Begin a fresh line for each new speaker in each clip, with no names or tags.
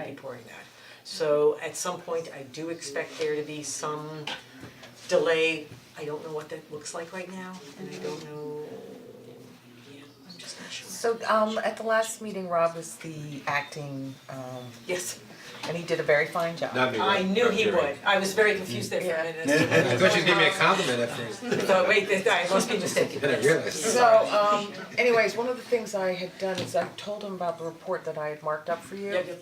gonna be pouring that. So at some point, I do expect there to be some delay, I don't know what that looks like right now, and I don't know, yeah, I'm just not sure.
So um at the last meeting, Rob was the acting um
Yes,
and he did a very fine job.
Not me, right?
I knew he
Right,
would,
right.
I was very confused there for a minute, as to-
I thought you'd give me a compliment at first, then
so wait, this, I must be mistaken.
I realized.
So um anyways, one of the things I had done is I told him about the report that I had marked up for you.
Yeah, yeah.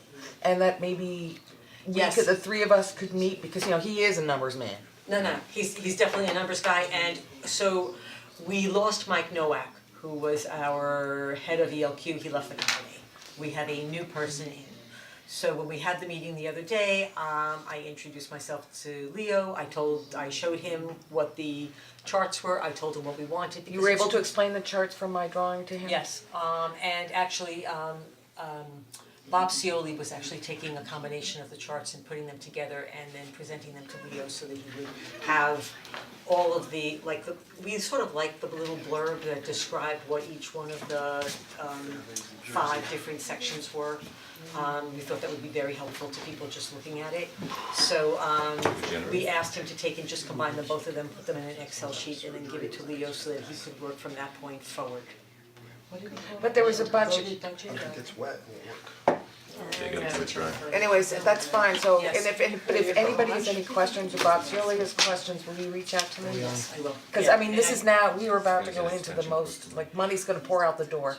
And that maybe we
Yes.
could, the three of us could meet because, you know, he is a numbers man.
No, no, he's he's definitely a numbers guy and so we lost Mike Nowak, who was our head of ELQ, he left the company. We have a new person in. So when we had the meeting the other day, um I introduced myself to Leo, I told, I showed him what the charts were, I told him what we wanted because
You were able
it's-
to explain the charts from my drawing to him?
Yes, um and actually um um Bob Cioli was actually taking a combination of the charts and putting them together and then presenting them to Leo so that he would have all of the, like the, we sort of like the little blurb that described what each one of the um five different sections were. Um we thought that would be very helpful to people just looking at it. So um we asked him to take and just combine them, both of them, put them in an Excel sheet and then give it to Leo so that he could work from that point forward.
But there was a bunch of,
Voted budget, uh,
It's wet.
anyways, that's fine, so and
Yes.
if and but if anybody has any questions or Bob Seoli has questions, will you reach out to me?
I will.
Cause
Yeah,
I mean, this
and
is now, we were about to go into the most, like money's gonna pour out the door.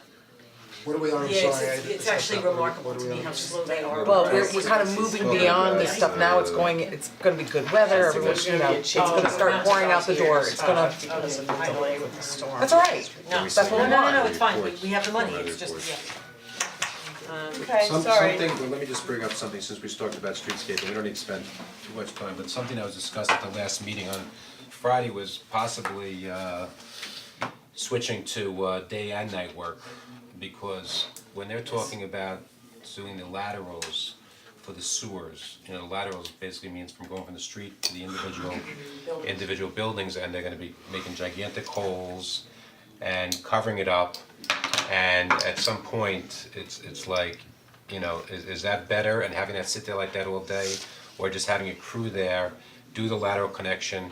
What are we on, I'm sorry.
Yeah, it's it's
I didn't
it's
step
actually
up. What are we-
remarkable
what are
to
we
me
on?
how slow they are.
Well, we're we're kind of moving beyond this stuff now, it's going, it's gonna be good weather, everyone's, you know, it's gonna
Oh,
start pouring out the door, it's gonna,
Because of the delay with the storm.
that's all right.
Oh, No,
That's what we
no, no, no,
want.
it's fine, we we have the money, it's just, yeah.
Okay,
Some- something, well, let me just bring up something, since we talked about streetscaping, we don't need to spend too much time, but something that was discussed at the last meeting on Friday was possibly uh switching to uh day and night work, because when they're talking about doing the laterals for the sewers, you know, laterals basically means from going from the street to the individual individual buildings, and they're gonna be making gigantic holes and covering it up, and at some point, it's it's like, you know, is is that better and having that sit there like that all day? Or just having a crew there, do the lateral connection,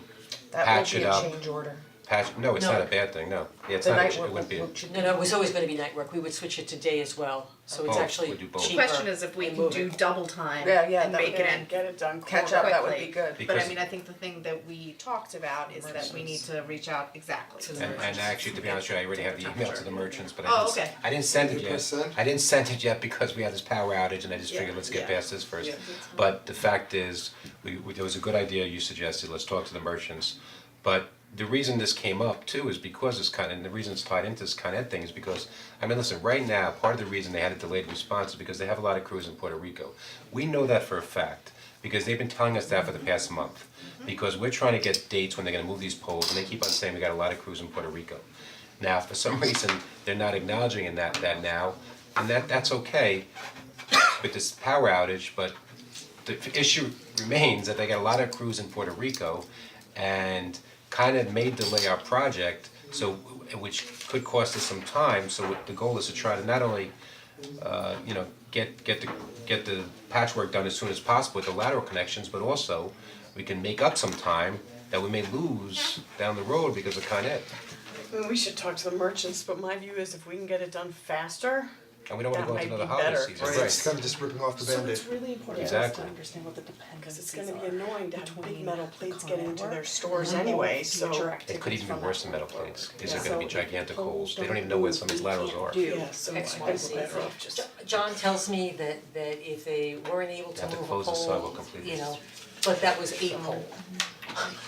That
patch
will be
it
a
up,
change order,
patch, no, it's not a
No.
bad thing, no, yeah, it's
the
not, a
night
ch- it
work
wouldn't be, a-
will- should
No, no, it was always gonna be night work, we would switch it to day as well, so it's
Both,
actually
Oh, we do both.
cheaper
Question is if we
and
can
move
do
it.
double time
Yeah, yeah,
and
that
make
would
it
be-
in
catch up, that would be
quickly.
good.
But
Because-
I mean, I think the thing that we talked about is that we need to reach out exactly to the
and and actually, to be honest with you, I already have the email to the merchants, but I
Oh,
didn't, s-
okay.
I didn't send it
You press
yet,
send?
I didn't send it yet because we had this power outage and I just
Yeah.
figured, let's get
Yeah.
past this first. But the fact is, we, we, there was a good idea you suggested, let's talk to the merchants, but the reason this came up too is because it's kind, and the reason it's tied into this Con Ed thing is because, I mean, listen, right now, part of the reason they had a delayed response is because they have a lot of crews in Puerto Rico. We know that for a fact, because they've been telling us that for the past month.
Mm-hmm.
Because we're trying to get dates when they're gonna move these poles, and they keep on saying we got a lot of crews in Puerto Rico. Now, for some reason, they're not acknowledging in that, that now, and that, that's okay with this power outage, but the f- issue remains that they got a lot of crews in Puerto Rico and kind of may delay our project, so, which could cost us some time, so what the goal is to try to not only uh, you know, get get the get the patchwork done as soon as possible with the lateral connections, but also we can make up some time that we may lose down the road because of Con Ed.
I mean, we should talk to the merchants, but my view is if we can get it done faster,
And we don't wanna
That
go
might
into another
be
holiday
better,
season,
right?
It's kind of just ripping off the Band-Aid.
really important
Exactly.
because it's gonna be annoying to have big metal plates get into their stores anyway, so.
It could even be worse than metal plates, these are gonna be gigantic holes, they don't even know where some of these laterals are.
Yeah, so I
X,
think
Y, Z.
we're better off just.
John tells me that that if they weren't able to
Have
move
to
a
close the sidewalk
pole,
completely.
you know, but that was eight pole.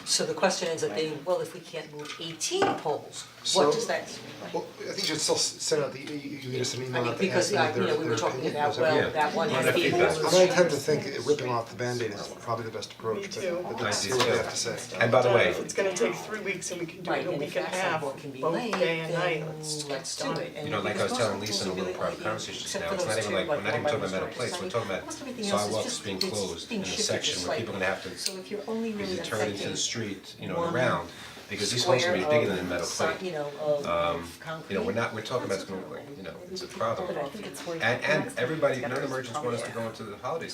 So the question ends up being, well, if we can't move eighteen poles,
So-
what does that mean?
Well, I think you should still s- send out the, you you can just an
I
email
mean,
out to
because,
ask them
uh,
if
you
their
know, we
their
were talking
opinion
about,
is okay.
Yeah.
well, that one
Well,
has
that
people.
feedback.
I mean, I tend to think it- ripping off the Band-Aid is probably the best approach, but
too.
but
I
let's
do
see what
too.
they have to say.
And by the way,
If it's gonna take three weeks and we can do it
Right,
in a
and
week
if
and a
that
half,
sidewalk can be
both
laid,
day and night,
then
let's
let's
let's
do
do
it.
it.
You know, like I was telling Lisa in a little private conversation just now, it's not even like, we're not even talking about metal plates, we're talking about sidewalks being closed in a section where people are gonna have to
So if you're only
because
really
it turned into
affecting
the street, you know,
one
and around, because these holes are gonna be bigger than a metal
square of si-
plate.
you know, of
Um,
of concrete.
you know, we're not, we're talking about, it's gonna, like, you know, it's a problem.
But I think it's worth
And and everybody, none of the merchants want us to go into the holiday